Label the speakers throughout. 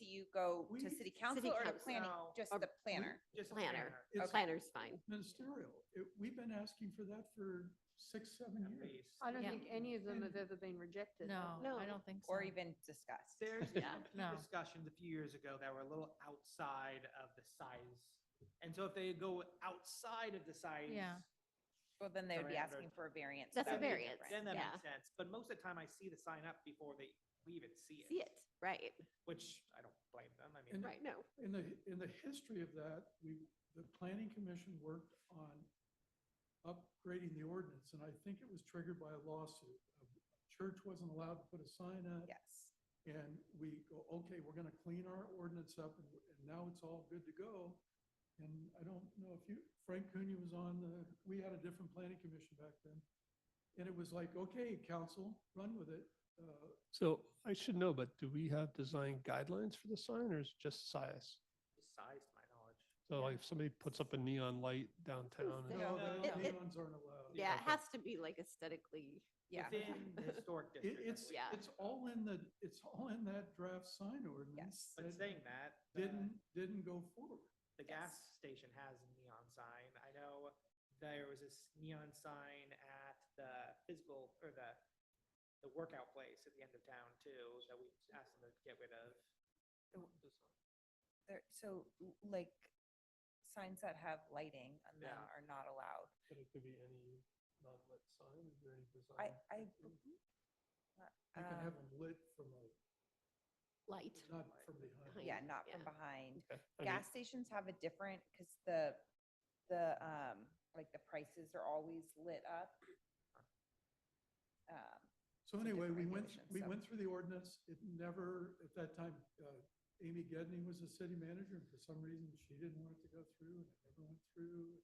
Speaker 1: you go to
Speaker 2: We-
Speaker 1: city council or to
Speaker 3: council.
Speaker 1: planning,
Speaker 2: No.
Speaker 1: just
Speaker 3: Or
Speaker 1: the planner?
Speaker 2: Just a
Speaker 3: Planner.
Speaker 2: It's
Speaker 3: Planner's fine.
Speaker 2: Ministerial. It- We've been asking for that for six, seven
Speaker 4: At
Speaker 2: years.
Speaker 4: least.
Speaker 5: I don't
Speaker 6: Yeah.
Speaker 5: think any of them have
Speaker 2: And-
Speaker 5: ever been rejected.
Speaker 6: No,
Speaker 3: No.
Speaker 6: I don't think so.
Speaker 3: Mm-hmm.
Speaker 1: Or even discussed?
Speaker 4: There's
Speaker 3: Yeah.
Speaker 4: a
Speaker 6: No.
Speaker 4: few discussions a few years ago that were a little outside of the size. And so if they go outside of the size.
Speaker 6: Yeah.
Speaker 1: Well, then they would be
Speaker 4: Surrounded.
Speaker 1: asking for a variance.
Speaker 3: That's
Speaker 1: that
Speaker 3: a
Speaker 1: would be
Speaker 3: variance.
Speaker 1: different.
Speaker 4: Then that
Speaker 3: Yeah.
Speaker 4: makes sense. But most of the time I see the sign up before they, we even see it.
Speaker 3: See it, right,
Speaker 4: Which I don't blame them. I
Speaker 2: And-
Speaker 4: mean,
Speaker 3: right, no.
Speaker 2: In the, in the history of that, we, the planning commission worked on upgrading the ordinance, and I think it was triggered by a lawsuit. Church wasn't allowed to put a sign up,
Speaker 1: Yes.
Speaker 2: and we go, okay, we're gonna clean our ordinance up, and and now it's all good to go. And I don't know if you, Frank Cunha was on the, we had a different planning commission back then. And it was like, okay, council, run with it. Uh,
Speaker 7: So I should know, but do we have design guidelines for the sign or is it just size?
Speaker 4: size to my knowledge.
Speaker 7: So like if somebody puts up a neon light
Speaker 3: Yeah.
Speaker 7: downtown, and-
Speaker 2: No,
Speaker 4: no,
Speaker 2: the
Speaker 3: it- it-
Speaker 2: neons aren't allowed.
Speaker 3: Yeah, it
Speaker 7: Okay.
Speaker 3: has to be like aesthetically,
Speaker 1: Yeah.
Speaker 4: Within the historic
Speaker 2: It,
Speaker 4: district. I
Speaker 2: it's,
Speaker 4: believe.
Speaker 3: Yeah.
Speaker 2: it's all in the, it's all in that draft sign ordinance.
Speaker 1: Yes.
Speaker 4: But
Speaker 2: that
Speaker 4: saying that. the-
Speaker 2: Didn't, didn't go forward.
Speaker 4: The gas station has a neon sign. I know there was this neon sign at the physical or the the workout place at the end of town too that we asked them to get rid of.
Speaker 1: There- So l- like signs that have lighting on them
Speaker 4: Yeah.
Speaker 1: are not allowed.
Speaker 7: but it could be any non-lit sign, is there any design?
Speaker 1: I, I.
Speaker 2: You can have
Speaker 1: um,
Speaker 2: them lit from a,
Speaker 3: light.
Speaker 2: not from behind.
Speaker 1: Yeah,
Speaker 3: behind,
Speaker 1: not from
Speaker 3: yeah.
Speaker 1: behind.
Speaker 7: Okay, I mean,
Speaker 1: Gas stations have a different, because the, the, um, like the prices are always lit up. Um,
Speaker 2: So
Speaker 1: It's a
Speaker 2: anyway, we
Speaker 1: different
Speaker 2: went,
Speaker 1: regulation,
Speaker 2: we
Speaker 1: so.
Speaker 2: went through the ordinance. It never, at that time, uh, Amy Gedney was the city manager, and for some reason, she didn't want it to go through, and it never went through.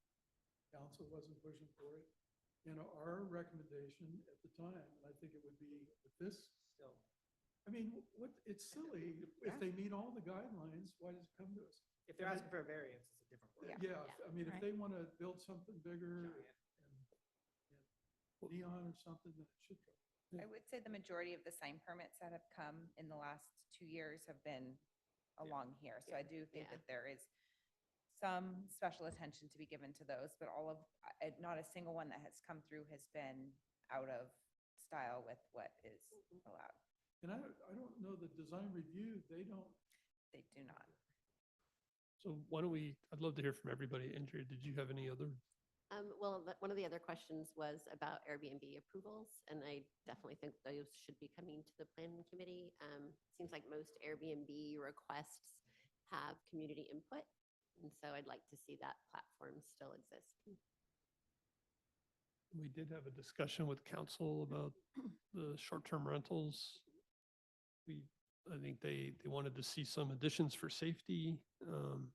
Speaker 2: Council wasn't pushing for it. And our recommendation at the time, and I think it would be with this
Speaker 4: Still,
Speaker 2: I mean, what, it's silly, if
Speaker 1: Yeah.
Speaker 2: they meet all the guidelines, why does it come to us?
Speaker 4: if they're asking for a variance, it's a different word.
Speaker 1: Yeah.
Speaker 2: Yeah, if- I mean, if
Speaker 6: Right.
Speaker 2: they want to build something bigger
Speaker 4: Giant.
Speaker 2: and neon or something, then it should go.
Speaker 1: I would say the majority of the sign permits that have come in the last two years have been along here. So I do think
Speaker 3: Yeah.
Speaker 1: that there is some special attention to be given to those, but all of, I- I- not a single one that has come through has been out of style with what is allowed.
Speaker 2: And I, don't- I don't know the design review, they don't,
Speaker 1: They do not.
Speaker 7: So why don't we, I'd love to hear from everybody. Andrea, did you have any other?
Speaker 3: Um, well, the- one of the other questions was about Airbnb approvals, and I definitely think those should be coming to the planning committee. Um, seems like most Airbnb requests have community input, and so I'd like to see that platform still exist.
Speaker 7: We did have a discussion with council about the short-term rentals. We, I think they, they wanted to see some additions for safety. um,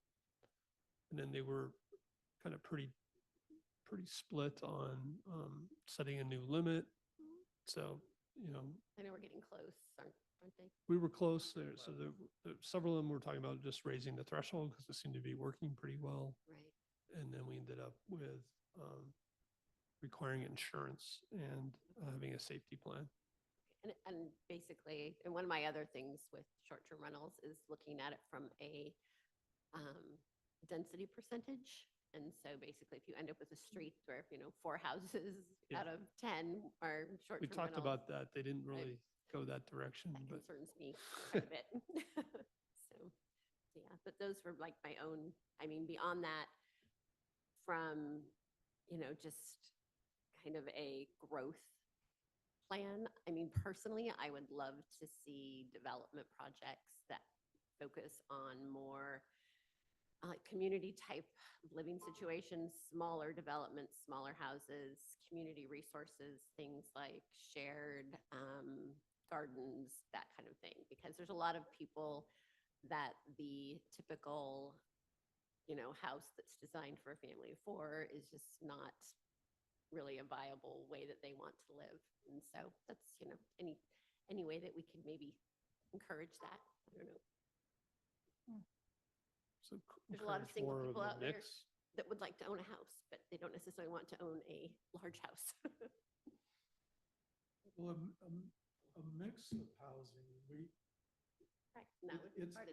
Speaker 7: And then they were kind of pretty, pretty split on um, setting a new limit. So, you know,
Speaker 3: I know we're getting close, aren't, aren't they?
Speaker 7: we were close there. So there, there- several of them were talking about just raising the threshold because it seemed to be working pretty well
Speaker 3: Right.
Speaker 7: and then we ended up with um, requiring insurance and uh, having a safety plan.
Speaker 3: And, and basically, and one of my other things with short-term rentals is looking at it from a um, density percentage. And so basically, if you end up with a street where, you know, four houses
Speaker 7: Hmm. Yeah.
Speaker 3: out of 10 are short-term
Speaker 7: We talked
Speaker 3: rentals,
Speaker 7: about that. They didn't really go that direction,
Speaker 3: That
Speaker 7: but
Speaker 3: concerns me quite a bit. So, yeah, but those were like my own, I mean, beyond that, from, you know, just kind of a growth plan. I mean, personally, I would love to see development projects that focus on more uh, community type living situations, smaller developments, smaller houses, community resources, things like shared um, gardens, that kind of thing. Because there's a lot of people that the typical, you know, house that's designed for a family of four is just not really a viable way that they want to live. And so that's, you know, any, any way that we could maybe encourage that. I don't know.
Speaker 7: so. c-
Speaker 3: There's a lot of
Speaker 7: encourage
Speaker 3: single
Speaker 7: more
Speaker 3: people
Speaker 7: a
Speaker 3: out there.
Speaker 7: mix.
Speaker 3: that would like to own a house, but they don't necessarily want to own a large house.
Speaker 2: well, a, m- a m- a mix of housing, we,
Speaker 3: Right. No.
Speaker 2: it's,
Speaker 3: part of